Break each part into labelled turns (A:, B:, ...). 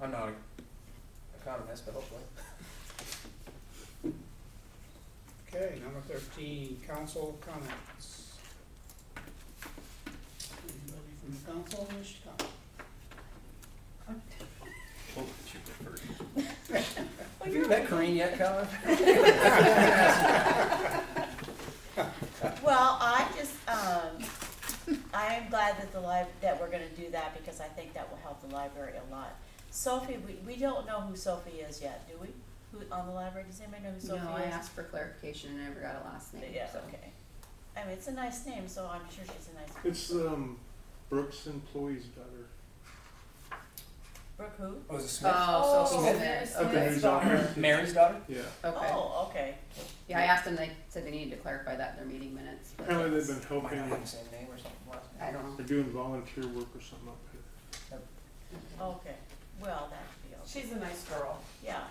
A: I'm not an economist, but hopefully.
B: Oh,
C: Okay, number thirteen, council comments. Anybody from the council wish to comment?
D: Oh, she went first.
A: Have you met Corinne yet, Colin?
E: Well, I just, um, I am glad that the lib, that we're gonna do that because I think that will help the library a lot. Sophie, we, we don't know who Sophie is yet, do we? Who, on the library, does anybody know who Sophie is?
B: No, I asked for clarification and I never got a last name,
E: Yeah,
B: so.
E: okay. I mean, it's a nice name, so I'm sure she's a nice.
F: It's um, Brooks' employee's daughter.
E: Brooke who?
A: Oh, is it Smith?
B: Oh, so
E: Oh,
B: Smith,
F: Okay,
B: okay,
F: who's on her?
A: Mary's daughter?
F: Yeah.
B: okay.
E: Oh, okay.
B: Yeah, I asked them, they said they needed to clarify that in their meeting minutes, but
F: Apparently they've been
A: Might not have
F: helping.
A: the same name or something. last name.
B: I don't know.
F: They're doing volunteer work or something up here.
E: Okay, well, that should be okay.
G: She's a nice girl.
E: Yeah,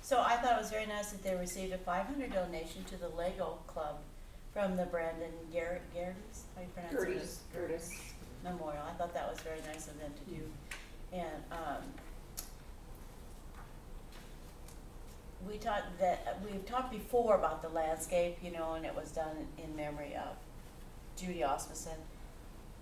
E: so I thought it was very nice that they received a five hundred donation to the Lego Club from the Brandon Garrett, Garrett's, how you pronounce it? Memorial, I thought that was very nice of them to do, and, um, we talked that, we've talked before about the landscape, you know, and it was done in memory of Judy Osmondson.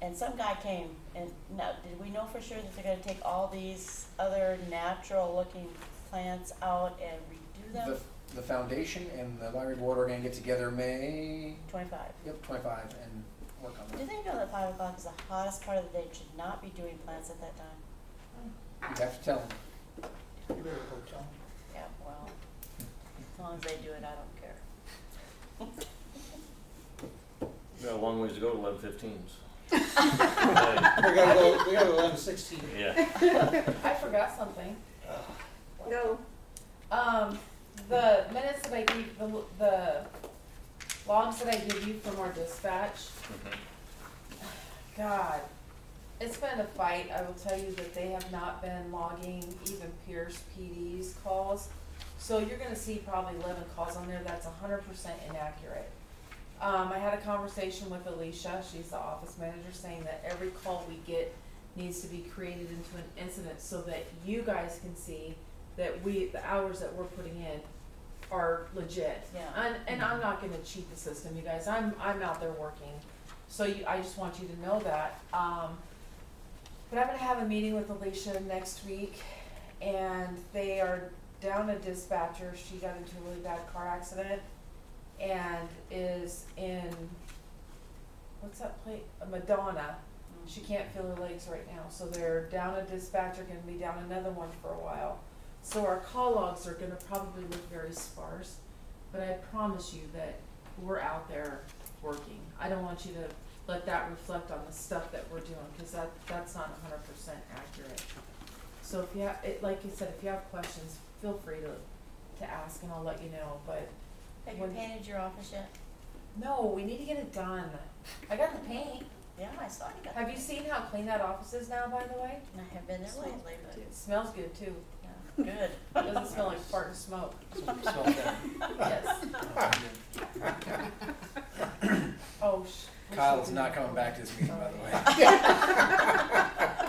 E: And some guy came and now, did we know for sure that they're gonna take all these other natural looking plants out and redo them?
A: The, the foundation and the library board are gonna get together May,
E: Twenty-five.
A: yep, twenty-five and work on
E: Do
A: that.
E: they know that five o'clock is the hottest part of the day, and should not be doing plants at that time?
A: You have to tell them.
C: You better go tell them.
E: Yeah, well, as long as they do it, I don't care.
D: We got a long ways to go to eleven fifteen,
C: We gotta go, we gotta go eleven sixteen.
D: Yeah.
G: I forgot something.
B: No.
G: Um, the minutes that I gave, the, the logs that I gave you from our dispatch, God, it's been a fight. I will tell you that they have not been logging even Pierce PD's calls. So you're gonna see probably eleven calls on there. That's hundred percent inaccurate. Um, I had a conversation with Alicia, she's the office manager, saying that every call we get needs to be created into an incident so that you guys can see that we, the hours that we're putting in are legit.
E: Yeah.
G: And, and I'm not gonna cheat the system, you guys, I'm, I'm out there working, so you, I just want you to know that, um. But I'm gonna have a meeting with Alicia next week, and they are down a dispatcher, she got into a really bad car accident and is in what's that play? Uh, Madonna. She can't feel her legs right now, so they're down a dispatcher, gonna be down another one for a while. So our call logs are gonna probably look very sparse, but I promise you that we're out there working. I don't want you to let that reflect on the stuff that we're doing, cause that, that's not hundred percent accurate. So if you have, it, like you said, if you have questions, feel free to, to ask and I'll let you know, but
E: Have you
G: When-
E: painted your office yet?
G: no, we need to get it done. I got the paint.
E: Yeah, I saw you got.
G: Have you seen how clean that office is now, by the way?
E: I have been there lately, but,
G: It smells good too.
E: yeah, good.
G: It doesn't smell like fart and smoke.
A: So- so then-
G: Yes. Oh, sh. we
A: Kyle's
G: should-
A: not coming back to this meeting, by the way.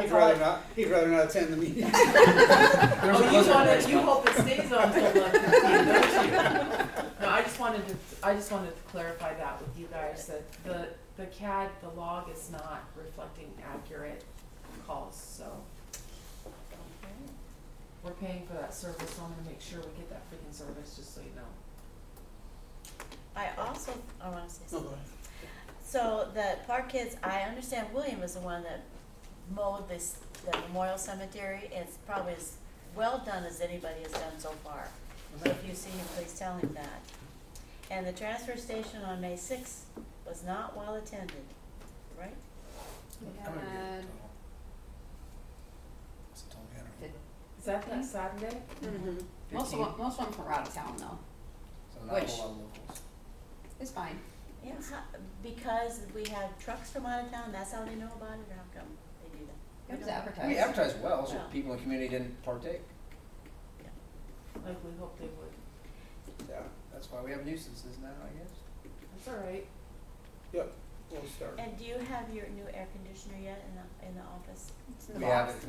G: I
C: He'd
G: thought-
C: rather not, he'd rather not attend the meeting.
A: There's a
G: Oh, you
A: blizzard
G: wanted,
A: next
G: you
A: month.
G: hope it stays on till eleven fifteen, don't you? No, I just wanted to, I just wanted to clarify that with you guys, that the, the CAD, the log is not reflecting accurate calls, so we're paying for that service, so I'm gonna make sure we get that freaking service, just so you know.
E: I also, I wanna say
C: No,
E: something.
C: go ahead.
E: So the Park Kids, I understand William is the one that mowed this, the memorial cemetery. It's probably as well done as anybody has done so far. But if you see him, please tell him that. And the transfer station on May sixth was not well attended, right?
B: We
A: I'm gonna get
B: had
A: it. It's a total matter.
B: Did-
G: Is that
B: Mhm.
G: that Saturday?
B: Most of, 'em- most of them from out of town though,
A: So not a
B: which-
A: whole lot of locals.
B: it's fine.
E: Yeah, how- because we have trucks from out of town, that's how they know about it, or how come they do that?
B: It
E: We
B: was
E: don't-
B: advertised.
A: We advertised well, so
E: Yeah.
A: people in the community didn't partake.
G: Like we hope they would.
C: Yeah,
A: That's why we have nuisances now, I guess.
G: That's all right.
C: yep, we'll start.
E: And do you have your new air conditioner yet in the, in the office?
B: It's in the
A: We have
B: box.
A: it